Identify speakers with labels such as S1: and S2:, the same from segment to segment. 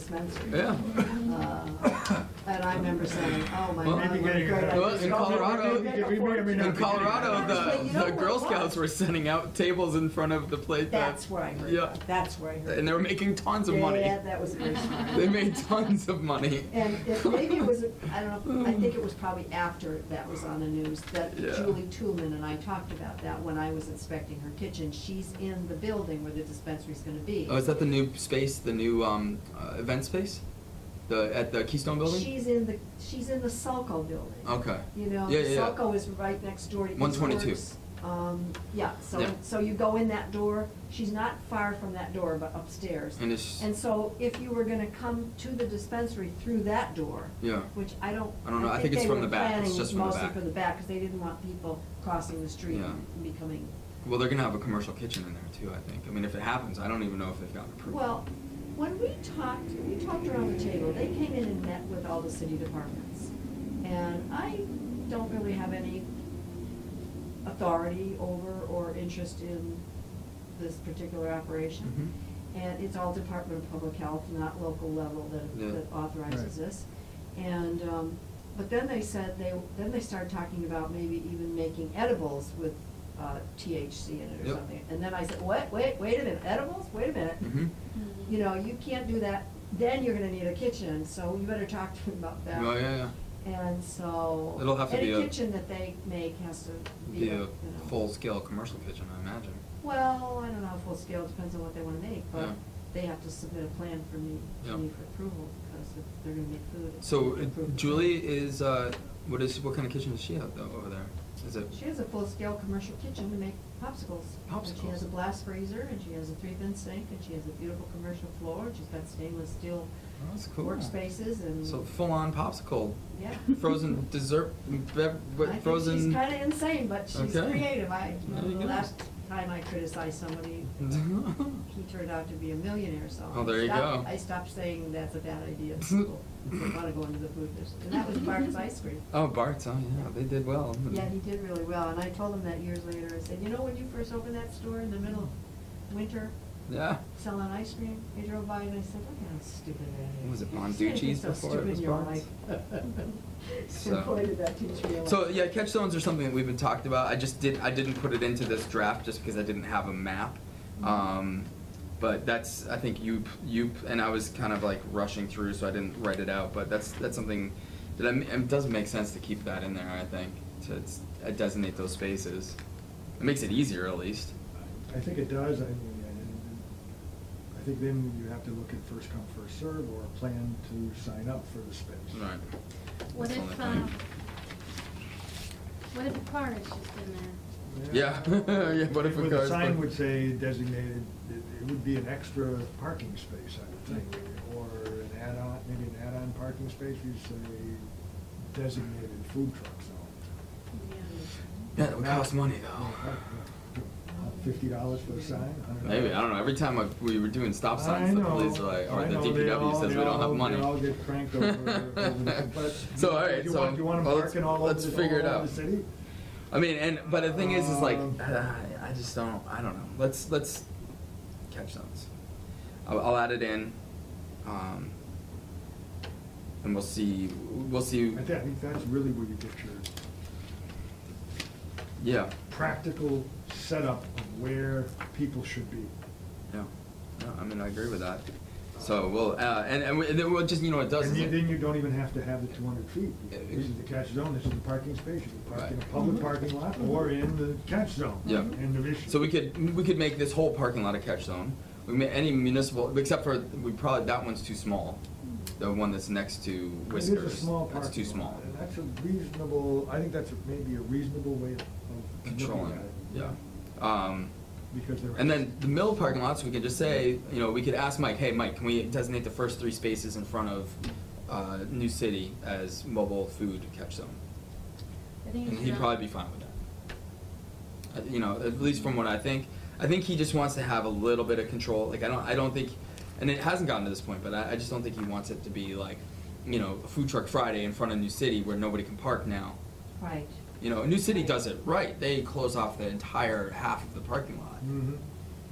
S1: dispensary.
S2: Yeah.
S1: Uh, And I remember saying, oh, my
S2: Well-
S1: God, what a great
S2: Well, in
S1: idea.
S2: Colorado, in
S1: Yeah,
S2: Colorado,
S1: but
S2: the,
S1: you know
S2: the Girl
S1: what?
S2: Scouts were sending out tables in front of the plate. that-
S1: That's where I heard
S2: Yeah.
S1: that, that's where I heard.
S2: And they were making tons of
S1: Yeah,
S2: money.
S1: Yeah, that was very smart.
S2: They made tons of money.
S1: And it, maybe it was, I don't know, I think it was probably after that was on the news, that
S2: Hmm. Yeah.
S1: Julie Toolman and I talked about that when I was inspecting her kitchen. She's in the building where the dispensary's gonna be.
S2: Oh, is that the new space, the new um, uh, event space, the at the Keystone Building?
S1: She's in the, she's in the Sulco building.
S2: Okay.
S1: You know,
S2: Yeah, yeah, yeah.
S1: Sulco is right next door to East
S2: 122.
S1: Works. Um, yeah, so,
S2: Yeah.
S1: so you go in that door, she's not far from that door, but upstairs.
S2: And it's-
S1: And so if you were gonna come to the dispensary through that door.
S2: Yeah.
S1: Which I don't.
S2: I don't know. I think it's
S1: they
S2: from
S1: were
S2: the back. It's
S1: planning
S2: just from the back.
S1: Mostly for the back, cause they didn't want people crossing the street
S2: Yeah.
S1: and becoming,
S2: Well, they're gonna have a commercial kitchen in there too. I think. I mean, if it happens, I don't even know if they've gotten approved.
S1: well, when we talked, we talked around the table, they came in and met with all the city departments. And I don't really have any authority over or interest in this particular operation.
S2: Mm-hmm.
S1: And it's all Department of Public Health, not local level
S2: Yeah.
S1: that, that authorizes
S3: Right.
S1: this. And, um, but then they said they, then they started talking about maybe even making edibles with, uh, THC in it or
S2: Yep.
S1: something. And then I said, what, wait, wait a minute, edibles, wait a minute.
S2: Mhm.
S1: You know, you can't do that, then you're gonna need a kitchen, so you better talk to them about that.
S2: Oh yeah, yeah.
S1: And so.
S2: It'll have to be a-
S1: Any kitchen that they make has to
S2: Be
S1: be, a, you
S2: a
S1: know.
S2: full-scale commercial kitchen, I imagine.
S1: Well, I don't know, full scale, depends on what they wanna make, but
S2: Yeah.
S1: they have to submit a plan for me,
S2: Yeah.
S1: to me for approval, because if they're gonna make food. it's
S2: So
S1: gonna be
S2: uh,
S1: approved.
S2: Julie is uh, what is what kind of kitchen does she have though over there? Is it?
S1: She has a full scale commercial kitchen to make popsicles. And she has a
S2: Popsicles.
S1: blast freezer, and she has a three thin sink, and she has a beautiful commercial floor, and she's got stainless steel
S2: Oh, that's cool.
S1: workspaces and.
S2: So full-on popsicle,
S1: Yeah.
S2: frozen dessert, bev-
S1: I
S2: what,
S1: think
S2: frozen.
S1: She's kinda insane, but she's
S2: Okay.
S1: creative. I,
S2: There you
S1: the
S2: go. Mm-hmm.
S1: last time I criticized somebody, he turned out to be a millionaire, so.
S2: Oh,
S1: I
S2: there you
S1: stopped-
S2: go.
S1: I stopped saying that's a bad idea. People wanna go into the food business. And that was Bart's Ice Cream.
S2: Oh, Bart's, oh yeah, they did well.
S1: Yeah, he did really well, and I told him that years later, I said, you know, when you first opened that store in the middle of winter,
S2: Yeah.
S1: selling ice cream, I drove by and I said, look how stupid that is.
S2: Was it
S1: You're saying
S2: Bonducci's
S1: things so
S2: before it
S1: stupid
S2: was
S1: in your
S2: Bonds?
S1: life."
S2: So-
S1: And boy, did that teach me a lot.
S2: So yeah, catch zones are something that we've been talked about. I just did I didn't put it into this draft just because I didn't have a map. Um, but that's I think you you and I was kind of like rushing through, so I didn't write it out. But that's that's something that I, m- it doesn't make sense to keep that in there. I think to s- uh, designate those spaces. It makes it easier at least.
S3: I think it does, I mean, and I think then you have to look at first come, first serve or a plan to sign up for the space.
S2: Right.
S4: What
S2: That's the
S4: if,
S2: only
S4: um,
S2: thing.
S4: what if a car is just in there?
S2: Yeah. Yeah, what if a
S3: Well, the
S2: car's
S3: sign
S2: parked-
S3: would say designated, it, it would be an extra parking space, I would think, or an add-on, maybe an add-on parking space, you say designated food truck zone.
S2: Yeah, it would cost money
S4: Uh-huh.
S3: Fifty dollars for the sign, $100.
S2: Maybe I don't know. Every time I, we were doing stop signs,
S3: I
S2: the
S3: know,
S2: police are like, or
S3: I
S2: the
S3: know, they
S2: DPW
S3: all-
S2: says
S3: they
S2: we don't
S3: all-
S2: have
S3: they
S2: money.
S3: all get cranked over- over the- but
S2: so all right,
S3: you
S2: so
S3: want- you want 'em
S2: well, let's-
S3: parking all over
S2: let's
S3: the-
S2: figure it
S3: all over
S2: out.
S3: the city?
S2: I mean, and but the thing is, is like,
S3: Um,
S2: I just don't. I don't know. Let's let's catch zones. I'll, I'll add it in, um, and we'll see. We'll see.
S3: I thi- I think that's really where you get your
S2: Yeah.
S3: practical setup of where people should be.
S2: Yeah. No, I mean, I agree with that. So we'll uh, and and, we, and then we'll just you know what it does.
S3: And
S2: is
S3: you-
S2: it-
S3: then you don't even have to have the two hundred feet.
S2: Yeah,
S3: This is the catch zone, this is the parking space, you can park in a
S2: Right.
S3: public parking lot or in the catch zone.
S2: Yeah.
S3: End of issue.
S2: So we could, we could make this whole parking lot a catch zone. We may, any municipal, except for, we probably, that one's too small. The one that's next to Whiskers.
S3: It is a small parking lot.
S2: That's too small.
S3: and That's a reasonable, I think that's a- maybe a reasonable way of of
S2: Controlling,
S3: looking
S2: it,
S3: at it.
S2: yeah. Um,
S3: Because there.
S2: and then the mill parking lots, we could just say, you know, we could ask Mike, hey, Mike, can we designate the first three spaces in front of, uh, New City as mobile food catch zone?
S4: I think
S2: And
S4: it's
S2: he'd
S4: not-
S2: probably be fine with that. Uh, You know, at least from what I think, I think he just wants to have a little bit of control. Like I don't, I don't think, and it hasn't gotten to this point, but I, I just don't think he wants it to be like, you know, a food truck Friday in front of New City where nobody can park now.
S1: Right.
S2: You know, New City does it right. They close off the entire half of the parking lot.
S3: Mhm.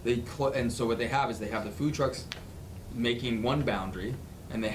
S2: They clo- and so what they have is they have the food trucks making one boundary and they